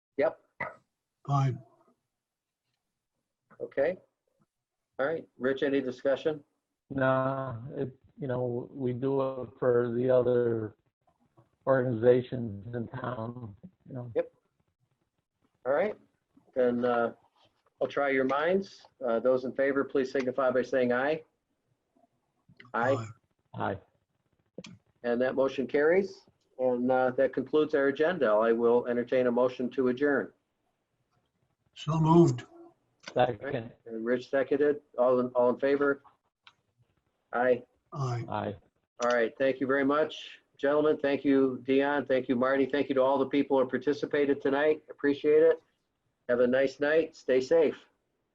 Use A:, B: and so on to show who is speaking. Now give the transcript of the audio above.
A: Yep,
B: Fine.
A: okay. All right, Rich, any discussion?
C: No, it, you know, we do it for the other organizations in town, you know.
A: All right, then uh, I'll try your minds. Uh, Those in favor, please signify by saying aye. Aye,
C: Aye.
A: and that motion carries. And uh, that concludes our agenda. I will entertain a motion to adjourn.
B: So moved.
C: Second,
A: And Rich seconded, all in, all in favor? Aye,
B: Aye.
C: aye.
A: all right, thank you very much. Gentlemen, thank you, Dion, thank you, Marty, thank you to all the people who participated tonight. Appreciate it. Have a nice night, stay safe.